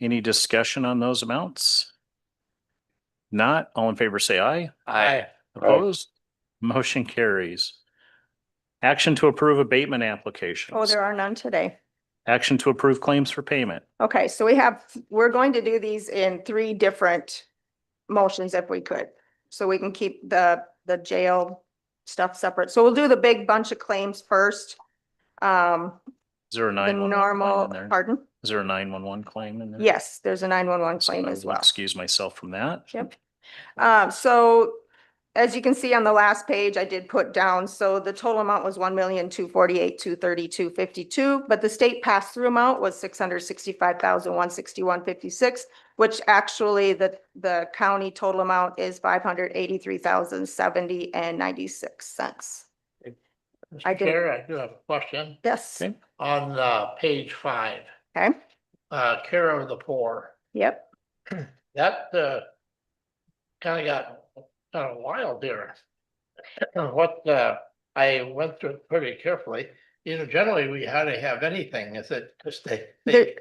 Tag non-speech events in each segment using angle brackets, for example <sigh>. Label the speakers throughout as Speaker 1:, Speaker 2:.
Speaker 1: Any discussion on those amounts? Not, all in favor, say aye.
Speaker 2: Aye.
Speaker 1: Opposed? Motion carries. Action to approve abatement
Speaker 3: Oh,
Speaker 1: applications.
Speaker 3: there are none today.
Speaker 1: Action to approve claims for payment.
Speaker 3: Okay, so we have, we're going to do these in three different motions if we could. So we can keep the, the jail stuff separate. So we'll do the big bunch of claims first. Um,
Speaker 1: Is there a
Speaker 3: the
Speaker 1: nine one one
Speaker 3: normal,
Speaker 1: claim in there?
Speaker 3: pardon?
Speaker 1: Is there a nine one one claim in there?
Speaker 3: Yes, there's a nine-one-one
Speaker 1: So
Speaker 3: claim
Speaker 1: I
Speaker 3: as
Speaker 1: will
Speaker 3: well.
Speaker 1: Excuse myself from that.
Speaker 3: Yep. Uh, so as you can see on the last page, I did put down, so the total amount was one million, two forty-eight, two thirty-two, fifty-two, but the state pass-through amount was six hundred sixty-five thousand, one sixty-one, fifty-six, which actually the, the county total amount is five hundred eighty-three thousand, seventy and ninety-six cents. I
Speaker 2: Mr.
Speaker 3: did-
Speaker 2: Chair, I do have a question
Speaker 3: Yes,
Speaker 1: Okay.
Speaker 2: on uh page five,
Speaker 3: okay,
Speaker 2: uh care of the poor.
Speaker 3: yep,
Speaker 2: That uh kind of got kind of wild there. What uh I went through it pretty carefully, you know, generally we hardly have anything, is it just they they
Speaker 3: There-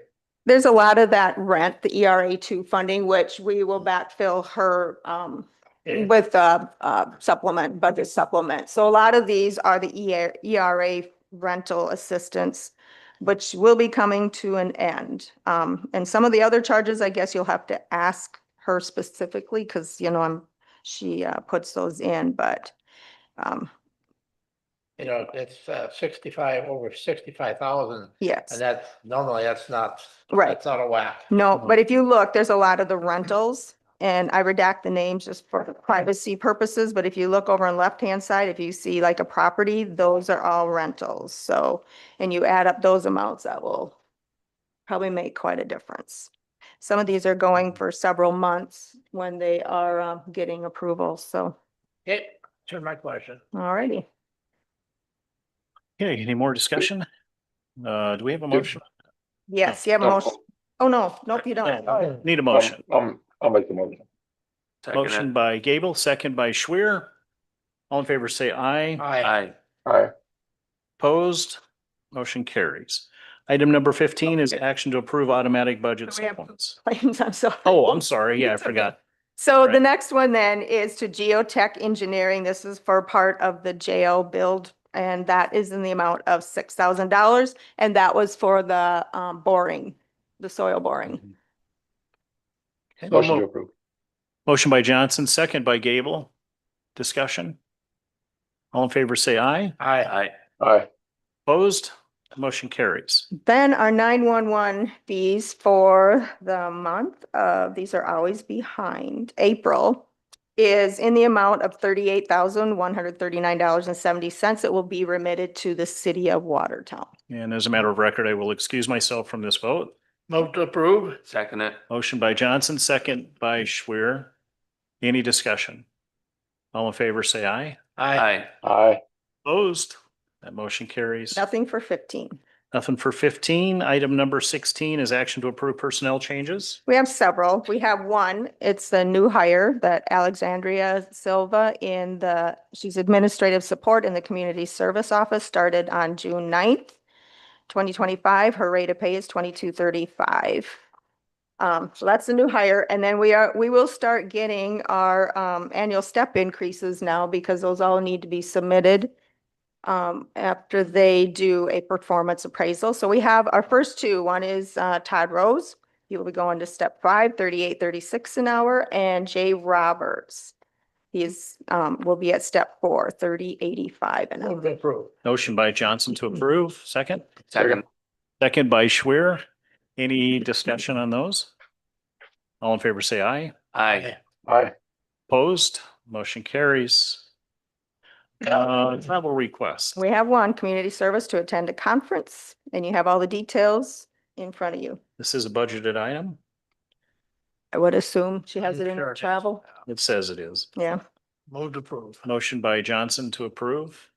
Speaker 3: there's a lot of that rent, the ERA two funding, which we will backfill her, um,
Speaker 2: eh,
Speaker 3: with a, uh supplement, budget supplement. So a lot of these are the E EA ERA rental assistance, which will be coming to an end. Um, and some of the other charges, I guess you'll have to ask her specifically because, you know, I'm, she, uh, puts those in, but, um,
Speaker 2: you know, it's uh sixty-five, over sixty-five thousand. And
Speaker 3: yes.
Speaker 2: that's normally that's not,
Speaker 3: Right.
Speaker 2: that's out of whack.
Speaker 3: No, but if you look, there's a lot of the rentals and I redact the names just for privacy purposes. But if you look over on left-hand side, if you see like a property, those are all rentals. So, and you add up those amounts, that will probably make quite a difference. Some of these are going for several months when they are um, getting approval. So,
Speaker 2: Okay, turn my question.
Speaker 3: all righty.
Speaker 1: Okay, any more discussion? Uh, do we have a motion?
Speaker 3: Yes, you have a
Speaker 4: No.
Speaker 3: motion. Oh, no, nope, you don't.
Speaker 1: No.
Speaker 3: Oh,
Speaker 1: Need a motion.
Speaker 4: Um, I'll make the motion.
Speaker 1: Motion by Gable, second by Schwer. All in favor, say aye.
Speaker 2: Aye.
Speaker 4: Aye.
Speaker 1: Opposed? Motion carries. Item number fifteen is action to approve automatic budget
Speaker 3: We have-
Speaker 1: supplements.
Speaker 3: Claims, <laughs> I'm sorry.
Speaker 1: Oh, I'm sorry. Yeah, I
Speaker 3: It's okay.
Speaker 1: forgot.
Speaker 3: So the
Speaker 1: Right.
Speaker 3: next one then is to geotech engineering. This is for part of the jail build. And that is in the amount of six thousand dollars. And that was for the um boring, the soil boring.
Speaker 4: Motion to approve.
Speaker 1: Motion by Johnson, second by Gable. Discussion? All in favor, say aye.
Speaker 2: Aye.
Speaker 4: Aye.
Speaker 1: Opposed? Motion carries.
Speaker 3: Then our nine-one-one fees for the month of, these are always behind, April is in the amount of thirty-eight thousand, one hundred thirty-nine dollars and seventy cents. It will be remitted to the city of Watertown.
Speaker 1: And as a matter of record, I will excuse myself from this vote.
Speaker 2: Move to approve.
Speaker 4: Second it.
Speaker 1: Motion by Johnson, second by Schwer. Any discussion? All in favor, say aye.
Speaker 2: Aye.
Speaker 4: Aye.
Speaker 1: Opposed? That motion carries.
Speaker 3: Nothing for fifteen.
Speaker 1: Nothing for fifteen. Item number sixteen is action to approve personnel changes.
Speaker 3: We have several. We have one. It's the new hire that Alexandria Silva in the, she's administrative support in the community service office, started on June 9th, twenty twenty-five. Her rate of pay is twenty-two thirty-five. Um, so that's the new hire. And then we are, we will start getting our um annual step increases now because those all need to be submitted um, after they do a performance appraisal. So we have our first two. One is uh Todd Rose. He will be going to step five, thirty-eight, thirty-six an hour, and Jay Roberts. He is, um, will be at step four, thirty, eighty-five an
Speaker 2: Move
Speaker 3: hour.
Speaker 2: to approve.
Speaker 1: Motion by Johnson to approve, second.
Speaker 4: Second.
Speaker 1: Second by Schwer. Any discussion on those? All in favor, say aye.
Speaker 2: Aye.
Speaker 4: Aye.
Speaker 1: Opposed? Motion carries. Uh, travel request.
Speaker 3: We have one, community service to attend a conference, and you have all the details in front of you.
Speaker 1: This is a budgeted item.
Speaker 3: I would assume she has
Speaker 2: I'm
Speaker 3: it in
Speaker 2: sure
Speaker 3: her
Speaker 2: it is.
Speaker 3: travel.
Speaker 1: It says it is.
Speaker 3: Yeah,
Speaker 2: Move to approve.
Speaker 1: Motion by Johnson to approve,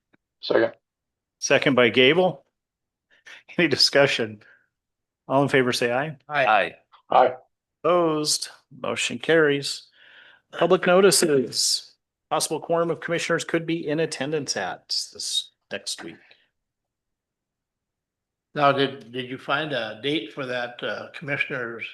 Speaker 4: Second.
Speaker 1: second by Gable. Any discussion? All in favor, say aye.
Speaker 2: Aye.
Speaker 5: Aye.
Speaker 4: Aye.
Speaker 1: Opposed, motion carries. Public notices, possible quorum of commissioners could be in attendance at this next week.
Speaker 2: Now, did, did you find a date for that uh, commissioner's